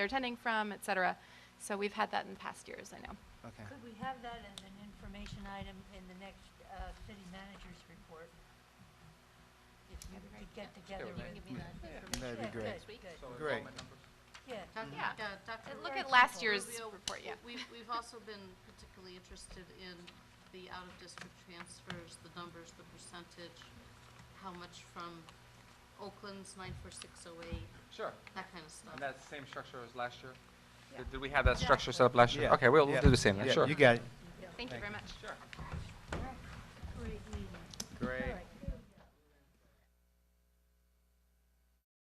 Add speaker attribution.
Speaker 1: they're attending from, et cetera. So we've had that in past years, I know.
Speaker 2: Okay.
Speaker 3: Could we have that as an information item in the next uh, city manager's report? If you
Speaker 1: That'd be great,
Speaker 3: could get together
Speaker 4: Sure.
Speaker 3: with.
Speaker 4: You can give
Speaker 2: That'd be
Speaker 4: me that
Speaker 3: Yeah,
Speaker 2: great.
Speaker 3: Good, good,
Speaker 2: Great.
Speaker 3: yeah.
Speaker 4: Doc-
Speaker 1: Yeah.
Speaker 4: uh, Dr.
Speaker 1: Look at
Speaker 3: Very
Speaker 1: last
Speaker 3: simple.
Speaker 1: year's
Speaker 4: Rubio,
Speaker 1: report, yeah.
Speaker 4: we- We've, we've also been particularly interested in the out-of-district transfers, the numbers, the percentage, how much from Oakland's nine four six oh eight,
Speaker 5: Sure,
Speaker 4: that kind of stuff.
Speaker 5: and that's the same structure as last year? Did- Did we have that structure set
Speaker 4: Exactly.
Speaker 5: up last year?
Speaker 2: Yeah,
Speaker 5: Okay, we'll we'll
Speaker 2: yeah,
Speaker 5: do the same, then,
Speaker 2: yeah,
Speaker 5: sure.
Speaker 2: You got it.
Speaker 1: Thank you very much.
Speaker 5: Sure.
Speaker 3: Great meeting.
Speaker 2: Great.
Speaker 3: All right.